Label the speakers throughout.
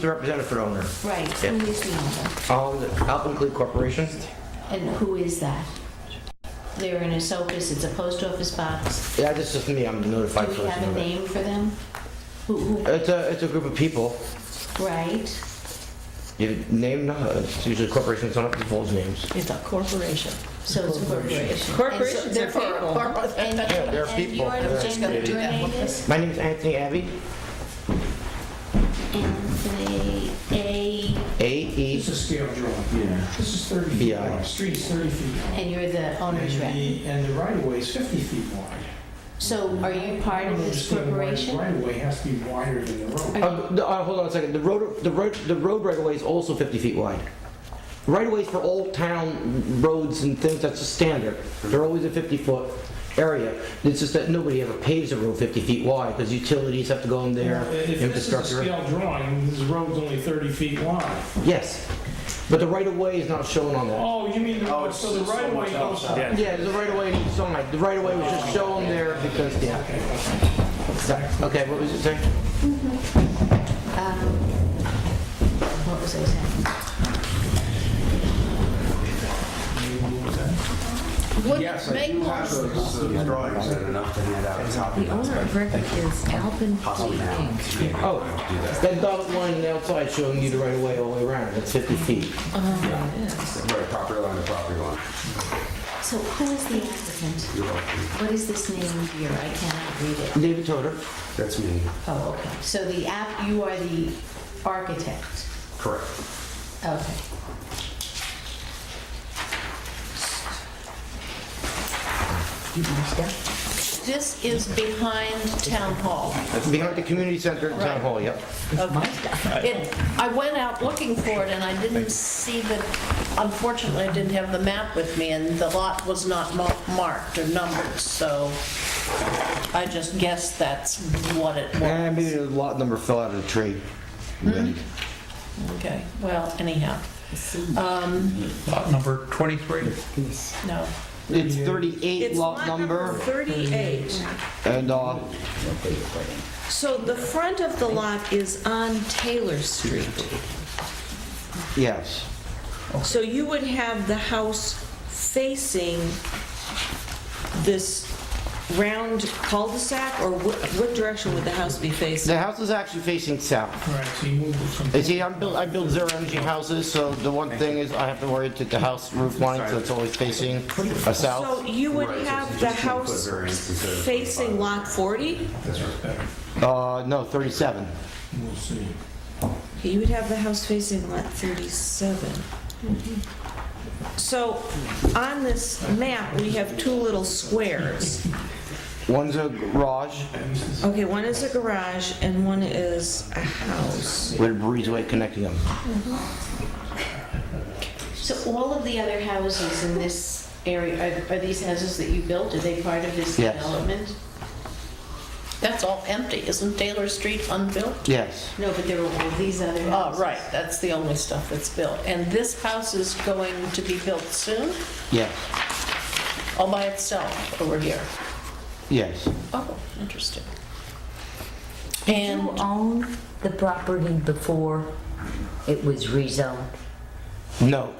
Speaker 1: the representative for owner?
Speaker 2: Right, who
Speaker 1: Yeah.
Speaker 2: is the owner?
Speaker 1: Um, Alpine Corporation?
Speaker 2: And who is that? They're in Esopus, it's a post office box.
Speaker 1: Yeah, this is me, I'm the
Speaker 2: Do
Speaker 1: notified
Speaker 2: we
Speaker 1: person.
Speaker 2: have a
Speaker 1: of it.
Speaker 2: name for them? Who, who,
Speaker 1: It's a, it's a group of people.
Speaker 2: right?
Speaker 1: You name, no, it's usually corporations, don't have to divulge names.
Speaker 3: It's a corporation.
Speaker 2: So it's a corporation.
Speaker 3: Corporations are
Speaker 2: And so-
Speaker 3: people.
Speaker 2: therefore- And,
Speaker 1: Yeah, they're
Speaker 2: and
Speaker 1: people.
Speaker 2: your,
Speaker 1: They're
Speaker 2: and
Speaker 1: created
Speaker 2: your name is
Speaker 1: My name is Anthony Abbey,
Speaker 2: Anthony A,
Speaker 1: A-E,
Speaker 4: It's a scale drawing.
Speaker 5: Yeah.
Speaker 4: This is 30 feet
Speaker 1: Yeah.
Speaker 4: wide, street is 30 feet wide.
Speaker 2: and you're the owner's
Speaker 4: And
Speaker 2: rep.
Speaker 4: the- And the right-of-way is 50 feet wide.
Speaker 2: So are you
Speaker 4: I
Speaker 2: part
Speaker 4: don't
Speaker 2: of this
Speaker 4: understand why the
Speaker 2: corporation?
Speaker 4: Right-of-way has to be wider than the road.
Speaker 1: Uh, the- uh, hold on a second. The road, the road, the road right away is also 50 feet wide. Right of ways for all town roads and things, that's a standard. They're always a 50 foot area. It's just that nobody ever paves a road 50 feet wide because utilities have to go in there,
Speaker 4: If this is a
Speaker 1: infrastructure.
Speaker 4: scale drawing, this road's only 30 feet wide.
Speaker 1: Yes, but the right of way is not shown on that.
Speaker 4: Oh, you mean, the so the right-of-way goes...
Speaker 5: Yeah.
Speaker 1: Yeah, there's a right of way inside. The right of way was just shown there because, yeah.
Speaker 4: Okay, okay.
Speaker 1: Okay, what was it saying?
Speaker 2: Um, What was I saying?
Speaker 3: Would
Speaker 6: Yes,
Speaker 3: it
Speaker 6: I
Speaker 3: make
Speaker 6: do
Speaker 3: more
Speaker 6: have those uh, drawings that are enough to hand out.
Speaker 7: The owner of record is Alpin
Speaker 6: Possibly
Speaker 7: Fleet
Speaker 6: now.
Speaker 7: Inc.
Speaker 1: Oh,
Speaker 6: Do that.
Speaker 1: that dotted line on the outside showing you the right of way all the way around. That's 50 feet.
Speaker 6: Right, property line to property line.
Speaker 2: So who is the applicant?
Speaker 6: You're welcome.
Speaker 2: What is this name here? I cannot read it.
Speaker 1: David Toder.
Speaker 6: That's me.
Speaker 2: Oh, okay. So the app, you are the architect.
Speaker 6: Correct.
Speaker 2: Okay.
Speaker 3: This is behind Town Hall.
Speaker 1: Behind the community center and town hall, yep.
Speaker 3: It- I went out looking for it and I didn't see the, unfortunately, I didn't have the map with me and the lot was not mar- marked or numbered, so I just guessed that's what it
Speaker 1: And maybe
Speaker 3: was.
Speaker 1: the lot number fell out of the tree.
Speaker 3: Okay, well, anyhow, Um,
Speaker 8: Lot number 23.
Speaker 3: no.
Speaker 1: It's 38 lot number,
Speaker 9: 38.
Speaker 1: and, uh,
Speaker 9: So the front of the lot is on Taylor Street.
Speaker 1: yes.
Speaker 9: So you would have the house facing this round cul-de-sac, or what what direction would the house be facing?
Speaker 1: The house is actually facing south.
Speaker 4: All right, so you moved it from...
Speaker 1: You see, I'm built, I build zero energy houses, so the one thing is I have to worry to the house roof line, so it's always facing a south.
Speaker 9: So you would
Speaker 6: Right, so
Speaker 9: have
Speaker 6: it's
Speaker 9: the
Speaker 6: just gonna put
Speaker 9: house
Speaker 6: variance instead of
Speaker 9: facing
Speaker 6: 25.
Speaker 9: Lot 40?
Speaker 1: Uh, no, 37.
Speaker 4: We'll see.
Speaker 9: You would have the house facing lot 37.
Speaker 1: Mm-hmm.
Speaker 9: So on this map, we have two little squares.
Speaker 1: One's a garage
Speaker 9: Okay, one is a garage and one is a house.
Speaker 1: with a breezeway connecting them.
Speaker 2: So all of the other houses in this area, are- are these houses that you built? Are they part of this
Speaker 1: Yes.
Speaker 2: development?
Speaker 3: That's all empty, isn't Taylor Street unbuilt?
Speaker 1: Yes.
Speaker 2: No, but there are all these other
Speaker 3: Oh,
Speaker 2: houses.
Speaker 3: right, that's the only stuff that's built. And this house is going to be built soon,
Speaker 1: Yes.
Speaker 3: all by itself over here?
Speaker 1: Yes.
Speaker 3: Oh, interesting.
Speaker 7: Did you
Speaker 3: And
Speaker 7: own the property before it was rezoned?
Speaker 1: No.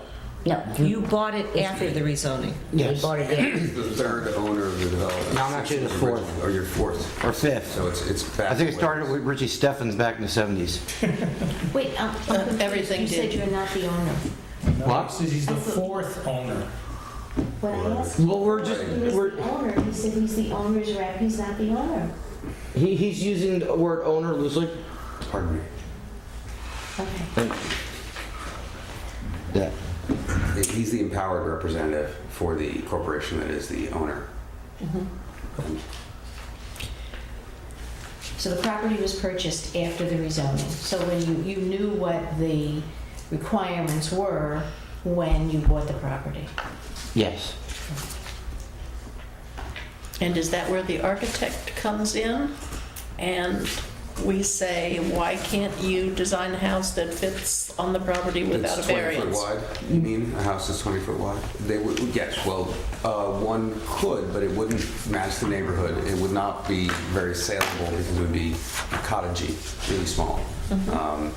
Speaker 7: No, you
Speaker 9: You bought it after the rezoning.
Speaker 7: you
Speaker 1: Yes.
Speaker 7: bought it in.
Speaker 6: The third owner of the development.
Speaker 1: No, I'm actually the fourth.
Speaker 6: Or your oh, fourth.
Speaker 1: Or fifth.
Speaker 6: So it's, it's back.
Speaker 1: I think it
Speaker 6: way.
Speaker 1: started with Richie Steffens back in the 70s.
Speaker 2: Wait, um,
Speaker 3: Uh,
Speaker 2: I'm confused.
Speaker 3: everything
Speaker 2: You said
Speaker 3: did.
Speaker 2: you're not the owner.
Speaker 1: What?
Speaker 4: Says he's the fourth owner.
Speaker 2: What I asked
Speaker 1: Well, we're just,
Speaker 2: him is
Speaker 1: we're,
Speaker 2: the owner. He said he's the owner's rep, he's not the owner.
Speaker 1: he, he's using the word owner loosely.
Speaker 6: Pardon me.
Speaker 2: Okay.
Speaker 1: Yeah.
Speaker 6: He's the empowered representative for the corporation that is the owner.
Speaker 2: So the property was purchased after the rezoning. So when you, you knew what the requirements were when you bought the property.
Speaker 1: Yes.
Speaker 3: And is that where the architect comes in? And we say, why can't you design a house that fits on the property without a
Speaker 6: It's 20 foot
Speaker 3: variance? Mm-hmm.
Speaker 6: wide. You mean a house is 20 foot wide? They would, yes, well, uh, one could, but it wouldn't match the neighborhood. It would not be very saleable because it would be cottagey, really small. Um,